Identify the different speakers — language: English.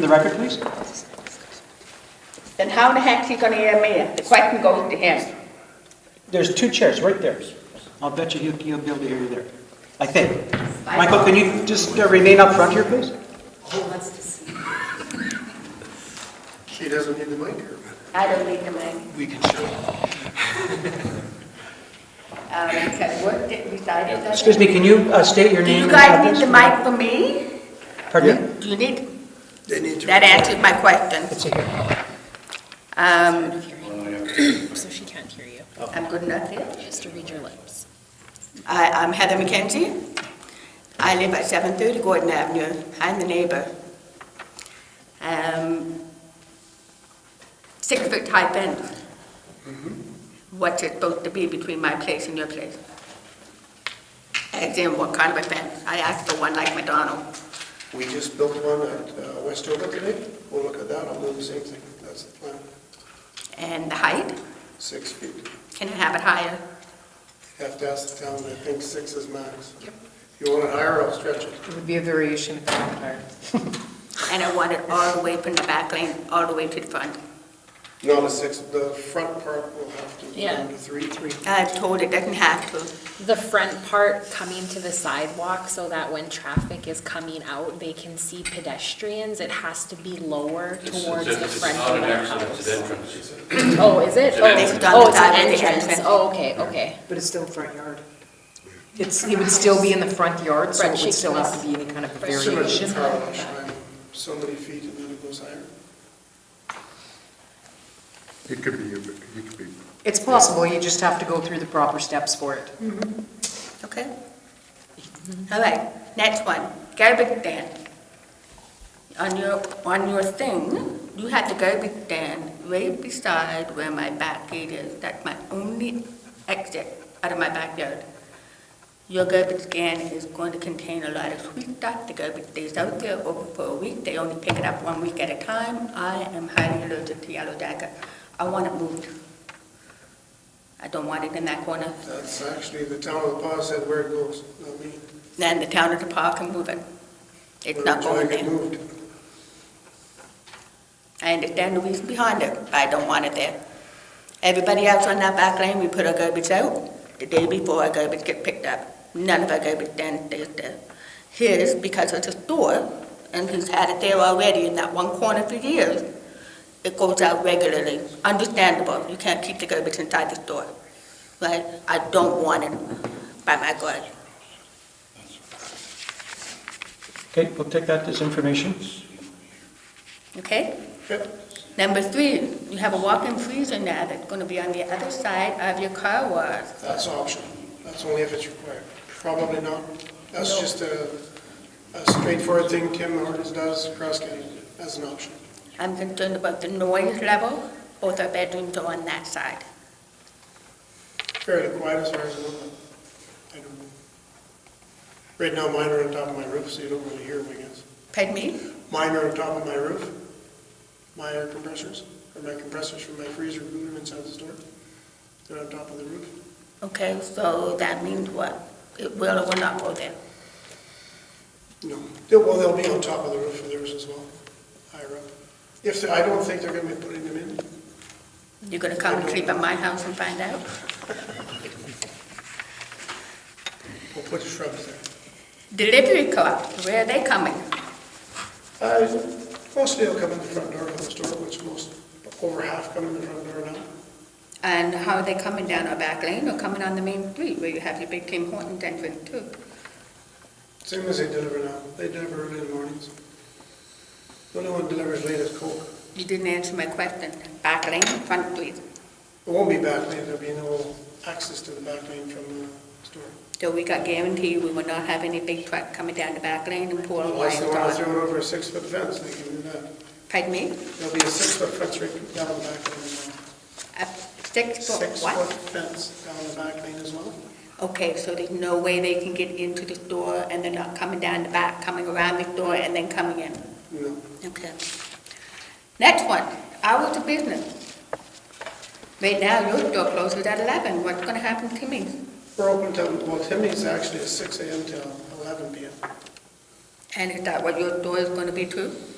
Speaker 1: the record, please?
Speaker 2: Then how the heck's he gonna hear me? The question goes to him.
Speaker 1: There's two chairs right there. I'll bet you he'll, he'll be able to hear you there, I think. Michael, can you just uh, remain up front here, please?
Speaker 3: She doesn't need the mic here.
Speaker 2: I don't need the money.
Speaker 3: We can show.
Speaker 2: Um, okay, what did we decide?
Speaker 1: Excuse me, can you uh, state your
Speaker 2: Do
Speaker 1: name?
Speaker 2: you
Speaker 1: and
Speaker 2: guys
Speaker 1: address?
Speaker 2: need the mic for me?
Speaker 1: Pardon me?
Speaker 2: Do you need,
Speaker 3: They need to.
Speaker 2: that answers my question.
Speaker 1: It's here.
Speaker 2: Um,
Speaker 4: So she can't hear you.
Speaker 2: I'm good enough here.
Speaker 4: She has to read your lips.
Speaker 2: I, I'm Heather McKenzie. I live at 730 Gordon Avenue. I'm the neighbor. Um, Six-foot high fence. What's it supposed to be between my place and your place? As in, what kind of a fence? I asked for one like McDonald.
Speaker 3: We just built one at uh, Westover today. We'll look at that. I'll do the same thing. That's the plan.
Speaker 2: And the height?
Speaker 3: Six feet.
Speaker 2: Can I have it higher?
Speaker 3: Have to ask the town. I think six is max. If you want it higher, I'll stretch it.
Speaker 5: It would be a variation of common art.
Speaker 2: And I want it all the way from the back lane, all the way to the front.
Speaker 3: No, the six, the front part will have to be
Speaker 4: Yeah.
Speaker 3: down to three. Three.
Speaker 2: I was told it doesn't have to.
Speaker 4: The front part coming to the sidewalk so that when traffic is coming out, they can see pedestrians. It has to be lower
Speaker 6: It's-
Speaker 4: towards
Speaker 6: it's-
Speaker 4: the
Speaker 6: it's
Speaker 4: front
Speaker 6: not
Speaker 4: of
Speaker 6: an
Speaker 4: their
Speaker 6: exit, It's an
Speaker 4: house.
Speaker 6: entrance.
Speaker 4: Oh, is it?
Speaker 6: It's an
Speaker 4: Oh,
Speaker 6: entrance.
Speaker 2: It's on the
Speaker 4: Oh, it's an
Speaker 2: side of the
Speaker 4: entrance.
Speaker 2: entrance.
Speaker 4: Oh, okay, okay.
Speaker 5: But it's still front yard. It's, it would still be in the front yard, so
Speaker 4: But
Speaker 5: it
Speaker 4: she
Speaker 5: would still
Speaker 4: can-
Speaker 5: have to be any kind of
Speaker 4: but she
Speaker 3: Similar to
Speaker 5: variation.
Speaker 4: can-
Speaker 3: car wash. I'm So many feet and then it goes higher.
Speaker 7: It could be, it could be.
Speaker 5: It's possible, you just have to go through the proper steps for it.
Speaker 2: Okay. All right, next one, garbage stand. On your, on your thing, you have the garbage stand right beside where my back gate is. That's my only exit out of my backyard. Your garbage can is going to contain a lot of sweet stuff. The garbage stays out there over for a week. They only pick it up one week at a time. I am highly allergic to yellow jacket. I want it moved. I don't want it in that corner.
Speaker 3: That's actually, the town of the paw said where it goes, not me.
Speaker 2: Then the town of the park can move it. It's not
Speaker 3: Where
Speaker 2: going
Speaker 3: it get
Speaker 2: there.
Speaker 3: moved.
Speaker 2: I understand the reason behind it, but I don't want it there. Everybody else on that back lane, we put our garbage out the day before our garbage get picked up. None of our garbage then stays there. His, because it's a store, and he's had it there already in that one corner for years, it goes out regularly. Understandable, you can't keep the garbage inside the store, right? I don't want it by my garden.
Speaker 1: Okay, we'll take that as information.
Speaker 2: Okay? Number three, you have a walk-in freezer now that's gonna be on the other side of your car wash.
Speaker 3: That's optional. That's only if it's required. Probably not. That's just a, a straightforward thing Tim Hortons does across Canada as an option.
Speaker 2: I'm concerned about the noise level, both our bedrooms are on that side.
Speaker 3: Fairly quiet as far as I know. but I don't know. Right now, mine are on top of my roof, so you don't really hear them, I guess.
Speaker 2: Pardon me?
Speaker 3: Mine are on top of my roof, my air compressors, or my compressors from my freezer room inside the store. They're on top of the roof.
Speaker 2: Okay, so that means what? It will or will not go there?
Speaker 3: No, They'll- well, they'll be on top of the roof for theirs as well, higher up. If, they- I don't think they're gonna be putting them in.
Speaker 2: You gonna come and sleep at my house and find out?
Speaker 3: We'll put shrubs there.
Speaker 2: Delivery car, where are they coming?
Speaker 3: Uh, Mostly they'll come in the front door of the store, which most, over half come in the front door now.
Speaker 2: And how are they coming down our back lane or coming on the main street where you have your big Tim Hortons entrance too?
Speaker 3: Same as they deliver now, they deliver early in the mornings. The only one delivers late is Coke.
Speaker 2: You didn't answer my question. Back lane, front street.
Speaker 3: It won't be back lane, there'll be no access to the back lane from the store.
Speaker 2: So we got guaranteed we will not have any big truck coming down the back lane and pouring lines
Speaker 3: Unless they wanna
Speaker 2: on.
Speaker 3: throw it over a six-foot fence, they can do that.
Speaker 2: Pardon me?
Speaker 3: There'll be a six-foot fence right down the back lane as well.
Speaker 2: A six foot
Speaker 3: Six-foot
Speaker 2: what?
Speaker 3: fence down the back lane as well.
Speaker 2: Okay, so there's no way they can get into the store and they're not coming down the back, coming around the store and then coming in.
Speaker 3: No,
Speaker 2: Okay. Next one, hours of business. Right now, your store closes at eleven. What's gonna happen to me?
Speaker 3: we're open till, well, Timmy's actually is six AM till eleven PM.
Speaker 2: And is that what your store is gonna be too?